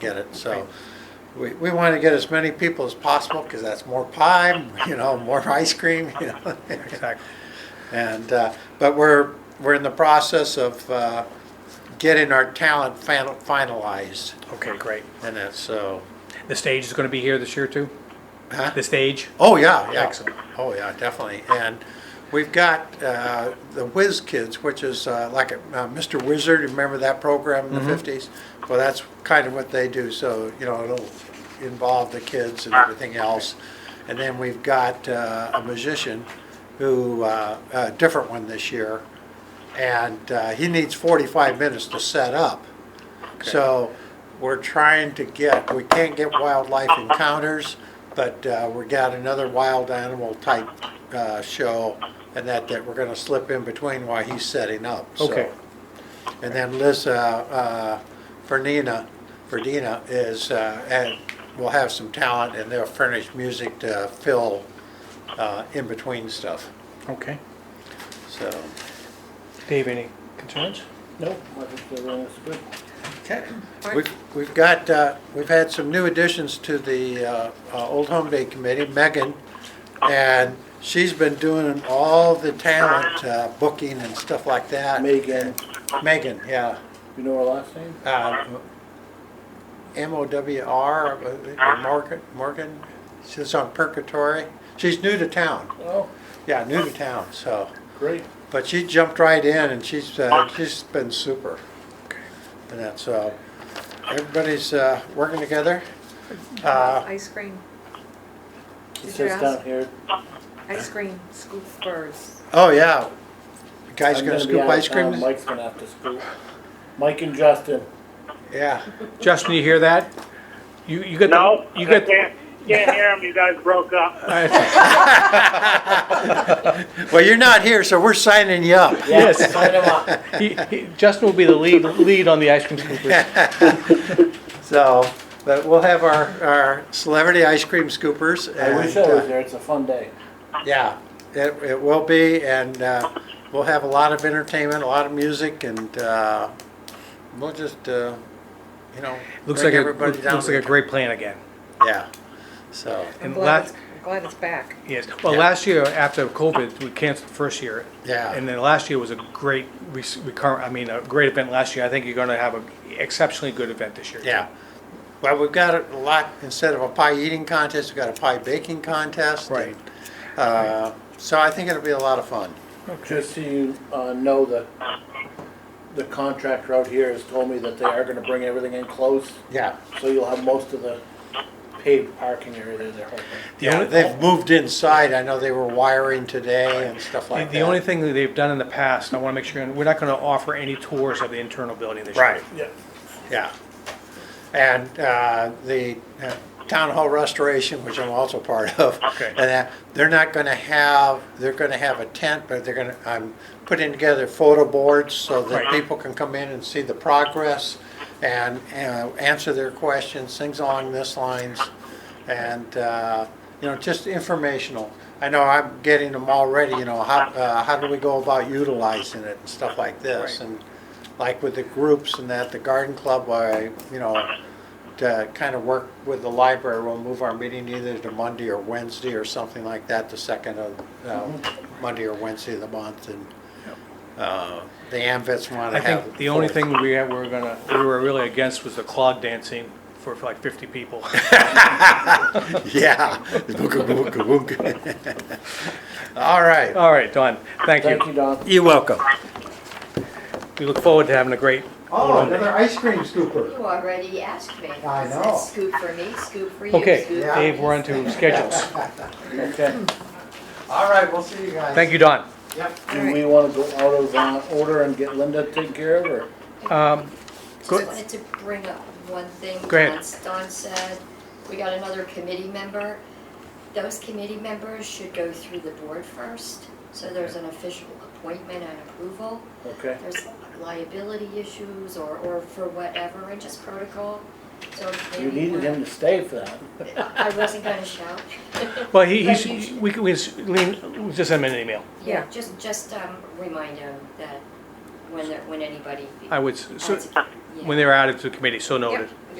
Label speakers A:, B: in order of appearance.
A: get it, so. We, we want to get as many people as possible, because that's more pie, you know, more ice cream, you know.
B: Exactly.
A: And, uh, but we're, we're in the process of uh, getting our talent final- finalized,
B: Okay, great.
A: and that's, so.
B: The stage is going to be here this year too?
A: huh?
B: The stage?
A: Oh, yeah, yeah.
B: Excellent.
A: Oh, yeah, definitely. And we've got uh, the Whiz Kids, which is uh, like a- uh, Mr. Wizard, remember that program in the 50s? Well, that's kind of what they do, so, you know, it'll involve the kids and everything else. And then we've got uh, a musician who, uh, a different one this year, and uh, he needs 45 minutes to set up. So we're trying to get, we can't get wildlife encounters, but uh, we got another wild animal type uh, show and that, that we're gonna slip in between while he's setting up, so.
B: Okay.
A: And then Liz, uh, uh, Fernina, Ferdina is, uh, and will have some talent and they'll furnish music to fill uh, in between stuff,
B: Okay.
A: so.
B: Dave, any concerns?
C: Nope, I think they're running good.
A: Okay. We've, we've got, uh, we've had some new additions to the, uh, uh, Old Home Day Committee, Megan. And she's been doing all the talent, uh, booking and stuff like that.
C: Megan,
A: Megan, yeah.
C: you know her last name?
A: Uh, M O W R, uh, Morgan, Morgan, she's on Purgatory. She's new to town,
C: Oh,
A: yeah, new to town, so.
C: great.
A: But she jumped right in and she's, uh, she's been super. And that's, uh, everybody's, uh, working together. Uh,
D: Ice cream,
C: It
D: Did you
C: says down
D: ask?
C: here.
D: ice cream scoop birds.
A: oh, yeah. You Guys
C: I'm
A: gonna
C: be
A: scoop
C: out of
A: ice
C: town,
A: cream?
C: Mike's gonna have to scoop. Mike and Justin,
A: Yeah.
B: Justin, you hear that? You, you got
E: No,
B: the,
E: you
B: you got,
E: can't, can't hear him. You guys broke up.
A: Well, you're not here, so we're signing you up.
C: yeah,
B: Yes.
C: sign him up.
B: he, he, Justin will be the lead, lead on the ice cream scooper.
A: So, but we'll have our, our celebrity ice cream scoopers.
C: I wish I
A: and, uh,
C: was there, it's a fun day.
A: Yeah, it, it will be, and uh, we'll have a lot of entertainment, a lot of music, and uh, we'll just, uh, you know,
B: Looks like
A: bring
B: a,
A: everybody down.
B: looks
A: to
B: like a
A: the-
B: great plan again.
A: Yeah, so,
D: I'm
B: And
D: glad,
B: la-
D: it's- I'm glad it's back.
B: Yes, well,
A: Yeah.
B: last year after COVID, we canceled the first year.
A: Yeah.
B: And then last year was a great rec- recur, I mean, a great event last year. I think you're gonna have an exceptionally good event this year.
A: yeah. Well, we've got a lot, instead of a pie eating contest, we've got a pie baking contest.
B: Right.
A: Uh, So I think it'll be a lot of fun.
C: Just so you, uh, know that the contractor out here has told me that they are gonna bring everything in close,
A: Yeah.
C: so you'll have most of the paved parking area there, they're hoping.
B: The
A: Yeah,
B: only-
A: they've moved inside, I know they were wiring today and stuff
B: The
A: like that.
B: the only thing that they've done in the past, I want to make sure, we're not going to offer any tours of the internal building this year.
A: Right.
C: Yeah.
A: Yeah. And uh, the uh, town hall restoration, which I'm also part of.
B: Okay.
A: And that, they're not gonna have, they're gonna have a tent, but they're gonna, I'm putting together photo boards so that
B: Right.
A: people can come in and see the progress and uh, answer their questions, things along this lines. And, uh, you know, just informational. I know I'm getting them already, you know, how, uh, how do we go about utilizing it and stuff like this?
B: Right.
A: And like with the groups and that, the garden club, I, you know, to kind of work with the library, we'll move our meeting either to Monday or Wednesday or something like that, the second of, uh, Monday or Wednesday of the month, and, uh, the AMVets want
B: I
A: to have.
B: think the only
A: fourth.
B: thing we had- were going to, we were really against was the clog dancing for for like 50 people.
A: Yeah. Booga, booga, booga. All right,
B: All right, Don, thank
C: Thank
B: you.
C: you, Don.
A: you're welcome.
B: We look forward to having a great.
A: Oh, another ice cream scooper.
F: You already asked me.
A: I know.
F: Scoop for me, scoop for you.
B: Okay,
F: scoop
A: Yeah.
F: for
B: Dave,
F: me.
B: we're on to schedules.
C: Okay.
A: All right, we'll see you guys.
B: Thank you, Don.
A: Yep.
C: Do we wanna go out of, uh, order and get Linda taken care of, or?
B: Um,
F: Just wanted to bring up one thing.
B: Go ahead.
F: Don Don said, we got another committee member. Those committee members should go through the board first, so there's an official appointment and approval.
C: Okay.
F: There's liability issues or, or for whatever, and just protocol, so maybe.
C: You needed
F: we're-
C: him to stay for that.
F: I I wasn't gonna shout.
B: Well, he,
F: But
B: he's,
F: you-
B: we can, we can, Lean, just send him an email.
F: Yeah,
D: Yeah.
F: just, just, um, remind him that when, there- when anybody.
B: I would, s- so-
F: adds- yeah.
B: when they're added to the committee, so noted.
F: Yep.